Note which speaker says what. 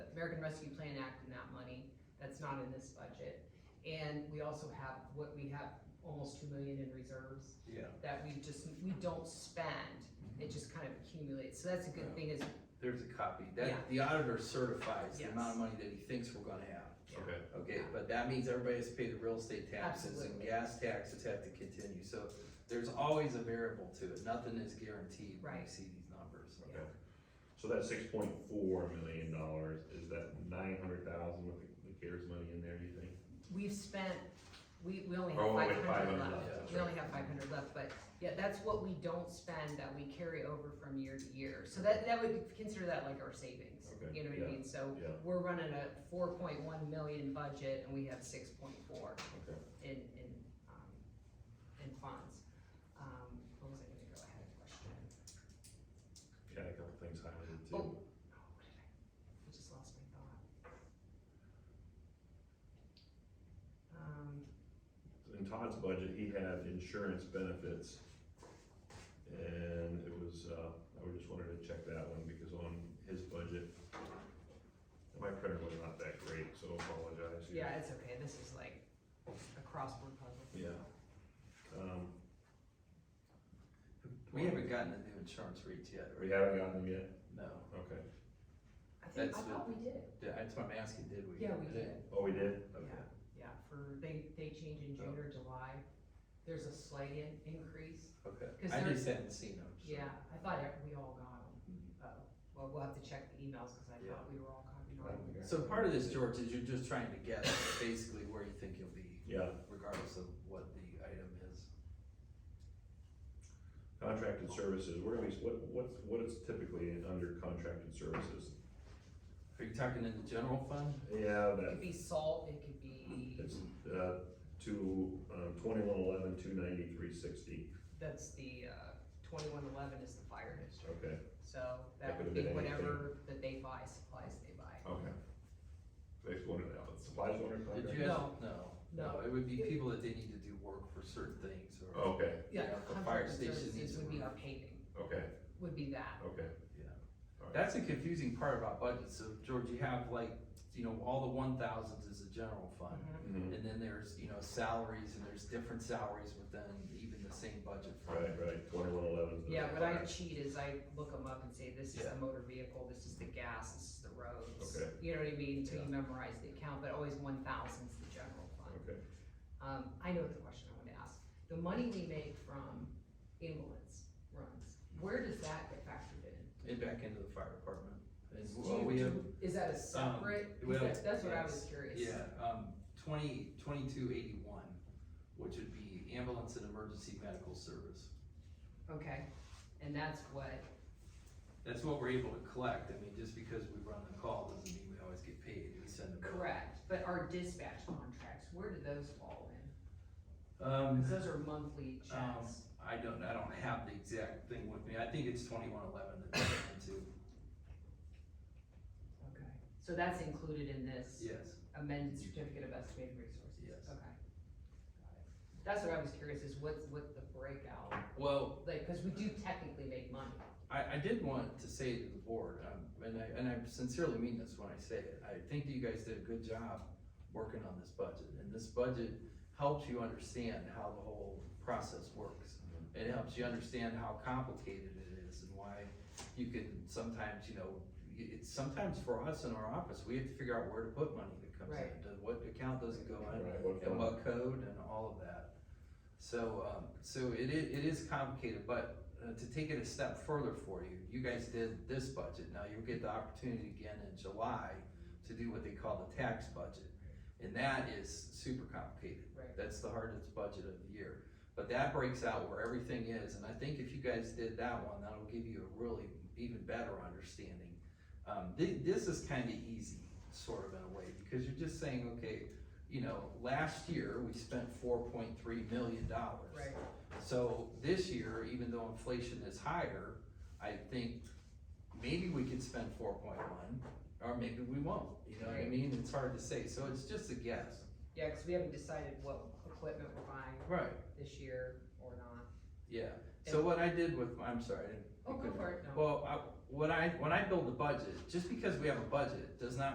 Speaker 1: American Rescue Plan Act and that money, that's not in this budget. And we also have, what, we have almost two million in reserves
Speaker 2: Yeah,
Speaker 1: that we just, we don't spend.
Speaker 3: Mm-hmm.
Speaker 1: It just kind of accumulates, so that's a good thing is,
Speaker 2: there's a copy.
Speaker 1: Yeah.
Speaker 2: That, the auditor certifies the
Speaker 1: Yes.
Speaker 2: amount of money that he thinks we're gonna have.
Speaker 3: Okay,
Speaker 2: Okay, but that means everybody has to pay the real estate taxes and
Speaker 1: Absolutely.
Speaker 2: gas taxes have to continue. So there's always a variable to it. Nothing is guaranteed when you
Speaker 1: Right.
Speaker 2: see these numbers.
Speaker 3: okay. So that six point four million dollars, is that nine hundred thousand with the- the CARES money in there, do you think?
Speaker 1: we've spent, we, we only
Speaker 3: Oh,
Speaker 1: have
Speaker 3: wait,
Speaker 1: five hundred
Speaker 3: 500
Speaker 1: left.
Speaker 3: left, that's
Speaker 1: We only
Speaker 3: right.
Speaker 1: have five hundred left, but yeah, that's what we don't spend that we carry over from year to year. So that, that would consider that like our savings,
Speaker 3: Okay,
Speaker 1: you know what I
Speaker 3: yeah,
Speaker 1: mean? So
Speaker 3: Yeah,
Speaker 1: we're running a four point one million budget and we have six point four
Speaker 3: okay.
Speaker 1: in, in, um, in funds. Um, what was I gonna go, I had a question.
Speaker 3: Got a couple things highlighted
Speaker 1: Oh,
Speaker 3: too.
Speaker 1: no, what did I, I just lost my thought. Um,
Speaker 3: In Todd's budget, he had insurance benefits. And it was, uh, I would just wanted to check that one because on his budget, my printer was not that great, so apologize. here.
Speaker 1: yeah, it's okay, this is like a crossword puzzle.
Speaker 3: Yeah. Um,
Speaker 2: We haven't gotten the new insurance rates yet,
Speaker 3: we
Speaker 2: right?
Speaker 3: haven't gotten them yet,
Speaker 2: No.
Speaker 3: okay.
Speaker 1: I think, I
Speaker 2: That's
Speaker 1: thought we did,
Speaker 2: Yeah, That's what I'm asking, did we?
Speaker 1: yeah, we did,
Speaker 3: Oh, we did? Okay.
Speaker 1: yeah, yeah, for, they, they change in June or July. There's a slight in, increase, Because
Speaker 2: Okay, I
Speaker 1: there's-
Speaker 2: just hadn't seen them. so-
Speaker 1: Yeah, I thought e- we all got them. Oh, well, we'll have to check the emails because I thought we were all copied on them.
Speaker 2: So part of this, George, is you're just trying to guess basically where you think you'll be
Speaker 3: Yeah,
Speaker 2: regardless of what the item is.
Speaker 3: contracted services, where are we, what, what's, what is typically under contracted services?
Speaker 2: Are you talking in the general fund?
Speaker 3: Yeah,
Speaker 1: It could
Speaker 3: that,
Speaker 1: be salt, it could be,
Speaker 3: it's, uh, two, um, twenty-one eleven, two ninety-three sixty,
Speaker 1: that's the, uh, twenty-one eleven is the fire district.
Speaker 3: okay,
Speaker 1: So that
Speaker 3: That
Speaker 1: would
Speaker 3: could've
Speaker 1: be
Speaker 3: been
Speaker 1: whatever that they buy, supplies they buy.
Speaker 3: okay. They just wanted that, but supplies were under
Speaker 2: Did
Speaker 3: contract?
Speaker 2: you
Speaker 1: No.
Speaker 2: ask- No,
Speaker 1: No.
Speaker 2: no, it would be people that they need to do work for certain things or,
Speaker 3: Okay,
Speaker 1: Yeah,
Speaker 2: Yeah, for fire
Speaker 1: contracted
Speaker 2: station
Speaker 1: services
Speaker 2: needs
Speaker 1: would be
Speaker 2: to-
Speaker 1: our paving,
Speaker 3: okay,
Speaker 1: would be that.
Speaker 3: okay,
Speaker 2: yeah.
Speaker 3: Alright.
Speaker 2: That's a confusing part about budgets. So George, you have like, you know, all the one thousands is the general fund.
Speaker 3: mhm,
Speaker 2: And then there's, you know, salaries and there's different salaries within even the same budget fund.
Speaker 3: right, right, twenty-one eleven.
Speaker 1: Yeah, what I cheat is I look them up and say, this is
Speaker 2: Yeah.
Speaker 1: the motor vehicle, this is the gas, this is the roads.
Speaker 3: Okay.
Speaker 1: You know what I mean, until you
Speaker 2: Yeah.
Speaker 1: memorize the account, but always one thousand's the general fund.
Speaker 3: Okay,
Speaker 1: Um, I know the question I want to ask. The money we make from ambulance runs, where does that get factored in?
Speaker 2: And back into the fire department. And
Speaker 1: Do
Speaker 2: well,
Speaker 1: you-
Speaker 2: we have,
Speaker 1: do- Is that a separate?
Speaker 2: well,
Speaker 1: That's that's what I was
Speaker 2: yes,
Speaker 1: curious.
Speaker 2: yeah, um, twenty, twenty-two eighty-one, which would be ambulance and emergency medical service.
Speaker 1: Okay, and that's what,
Speaker 2: That's what we're able to collect. I mean, just because we run the call doesn't mean we always get paid. We send them.
Speaker 1: correct, but our dispatch contracts, where do those fall in?
Speaker 2: Um,
Speaker 1: Because those are monthly
Speaker 2: um,
Speaker 1: checks.
Speaker 2: I don't, I don't have the exact thing with me. I think it's twenty-one eleven that they're into.
Speaker 1: Okay, so that's included in this
Speaker 2: Yes,
Speaker 1: amended certificate of estimated resources?
Speaker 2: Yes.
Speaker 1: Okay. Got it. That's what I was curious is what's, what the breakout,
Speaker 2: well,
Speaker 1: like, because we do technically make money.
Speaker 2: I, I did want to say to the board, um, and I, and I sincerely mean this when I say it, I think that you guys did a good job working on this budget, and this budget helps you understand how the whole process works. It helps you understand how complicated it is and why you can sometimes, you know, y- it's sometimes for us in our office, we have to figure out where to put money that comes
Speaker 1: Right.
Speaker 2: in. does- What account does it go in,
Speaker 3: Right, what
Speaker 2: and
Speaker 3: fund?
Speaker 2: what code and all of that. So, um, so it is, it is complicated, but uh, to take it a step further for you, you guys did this budget, now you'll get the opportunity again in July to do what they call the tax budget. And that is super complicated.
Speaker 1: Right.
Speaker 2: That's the hardest budget of the year. But that breaks out where everything is, and I think if you guys did that one, that'll give you a really even better understanding. Um, thi- this is kinda easy, sort of in a way, because you're just saying, okay, you know, last year, we spent four point three million dollars. So this year, even though inflation is higher, I think maybe we could spend four point one, or maybe we won't, you know what I
Speaker 1: Right.
Speaker 2: mean? It's hard to say, so it's just a guess.
Speaker 1: Yeah, because we haven't decided what equipment we're buying
Speaker 2: Right.
Speaker 1: this year or not.
Speaker 2: Yeah, so what I did with, I'm sorry, I didn't.
Speaker 1: Oh, go for it, no.
Speaker 2: Well, I, what I, when I build the budget, just because we have a budget, does not